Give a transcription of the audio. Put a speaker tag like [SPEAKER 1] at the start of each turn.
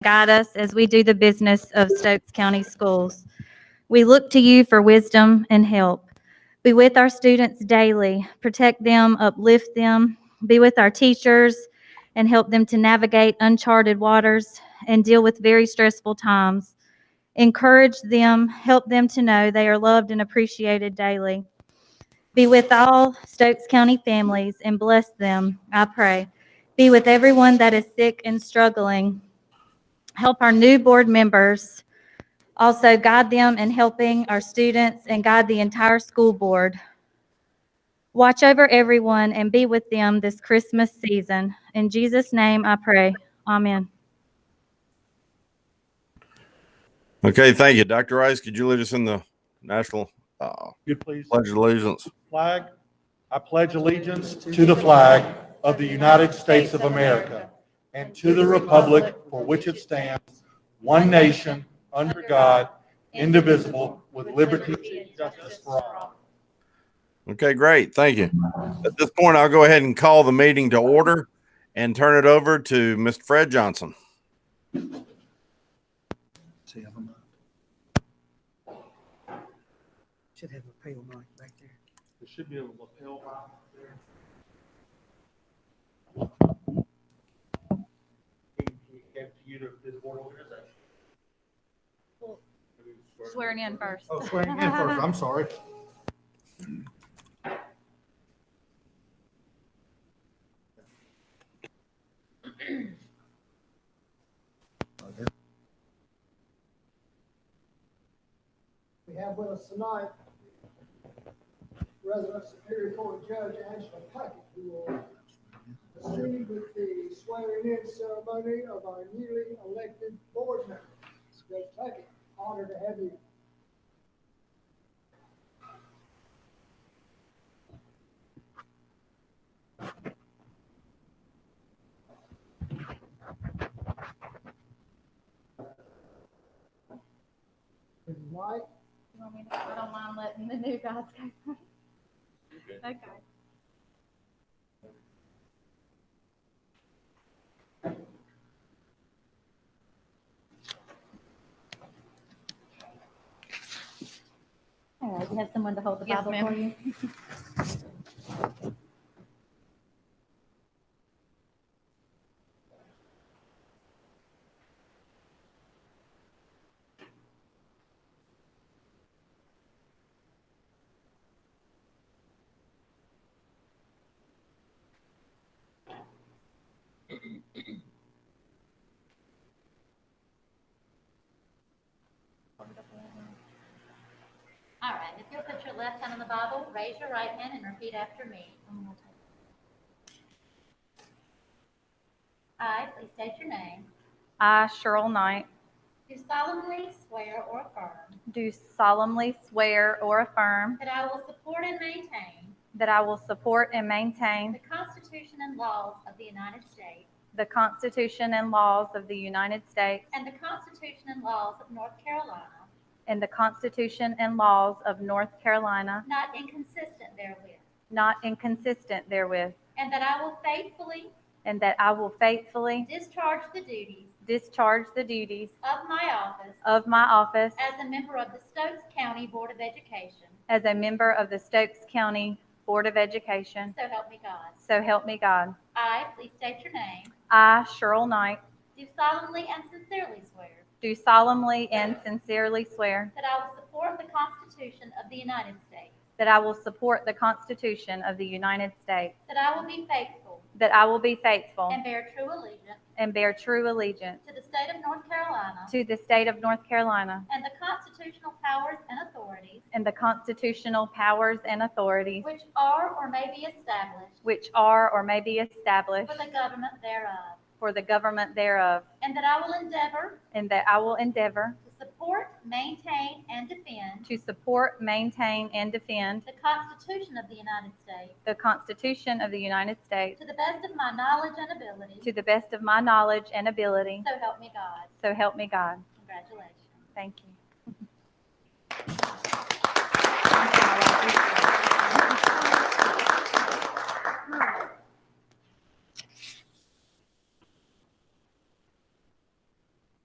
[SPEAKER 1] Guide us as we do the business of Stokes County Schools. We look to you for wisdom and help. Be with our students daily, protect them, uplift them, be with our teachers, and help them to navigate uncharted waters and deal with very stressful times. Encourage them, help them to know they are loved and appreciated daily. Be with all Stokes County families and bless them, I pray. Be with everyone that is sick and struggling. Help our new board members. Also guide them in helping our students and guide the entire school board. Watch over everyone and be with them this Christmas season. In Jesus' name I pray. Amen.
[SPEAKER 2] Okay, thank you. Dr. Rice, could you lead us in the national uh,
[SPEAKER 3] you please
[SPEAKER 2] pledge of allegiance?
[SPEAKER 3] flag? I pledge allegiance to the flag of the United States of America and to the republic for which it stands, one nation, under God, indivisible, with liberty and justice for all.
[SPEAKER 2] Okay, great. Thank you. At this point, I'll go ahead and call the meeting to order and turn it over to Mr. Fred Johnson.
[SPEAKER 3] See, I'm not-
[SPEAKER 4] Should have a pale mark back there.
[SPEAKER 3] There should be a lapel mic there. He he gave to you to this board organization.
[SPEAKER 1] Swearing in first.
[SPEAKER 3] Oh, swearing in first, I'm sorry.
[SPEAKER 5] We have with us tonight resident Superior Court Judge Angela Puckett, who will proceed with the swearing in ceremony of our newly elected board members. Judge Puckett, honored to have you. If you like,
[SPEAKER 1] You want me to- I don't mind letting the new guys go. Okay. All right, you have someone to hold the Bible for you?
[SPEAKER 6] All right, if you'll put your left hand on the Bible, raise your right hand and repeat after me. I, please state your name,
[SPEAKER 1] I, Cheryl Knight,
[SPEAKER 6] do solemnly swear or affirm
[SPEAKER 1] do solemnly swear or affirm
[SPEAKER 6] that I will support and maintain
[SPEAKER 1] that I will support and maintain
[SPEAKER 6] the Constitution and laws of the United States
[SPEAKER 1] the Constitution and laws of the United States
[SPEAKER 6] and the Constitution and laws of North Carolina,
[SPEAKER 1] and the Constitution and laws of North Carolina,
[SPEAKER 6] not inconsistent therewith,
[SPEAKER 1] not inconsistent therewith,
[SPEAKER 6] and that I will faithfully
[SPEAKER 1] and that I will faithfully
[SPEAKER 6] discharge the duties
[SPEAKER 1] discharge the duties
[SPEAKER 6] of my office
[SPEAKER 1] of my office
[SPEAKER 6] as a member of the Stokes County Board of Education,
[SPEAKER 1] as a member of the Stokes County Board of Education.
[SPEAKER 6] so help me God.
[SPEAKER 1] So help me God.
[SPEAKER 6] I, please state your name,
[SPEAKER 1] I, Cheryl Knight,
[SPEAKER 6] do solemnly and sincerely swear
[SPEAKER 1] do solemnly and sincerely swear
[SPEAKER 6] that I will support the Constitution of the United States,
[SPEAKER 1] that I will support the Constitution of the United States,
[SPEAKER 6] that I will be faithful
[SPEAKER 1] that I will be faithful
[SPEAKER 6] and bear true allegiance
[SPEAKER 1] and bear true allegiance
[SPEAKER 6] to the state of North Carolina
[SPEAKER 1] to the state of North Carolina
[SPEAKER 6] and the constitutional powers and authorities
[SPEAKER 1] and the constitutional powers and authorities
[SPEAKER 6] which are or may be established
[SPEAKER 1] which are or may be established
[SPEAKER 6] for the government thereof,
[SPEAKER 1] for the government thereof,
[SPEAKER 6] and that I will endeavor
[SPEAKER 1] and that I will endeavor
[SPEAKER 6] to support, maintain, and defend
[SPEAKER 1] to support, maintain, and defend
[SPEAKER 6] the Constitution of the United States
[SPEAKER 1] the Constitution of the United States
[SPEAKER 6] to the best of my knowledge and ability,
[SPEAKER 1] to the best of my knowledge and ability.
[SPEAKER 6] so help me God.
[SPEAKER 1] So help me God.
[SPEAKER 6] Congratulations.
[SPEAKER 1] Thank you.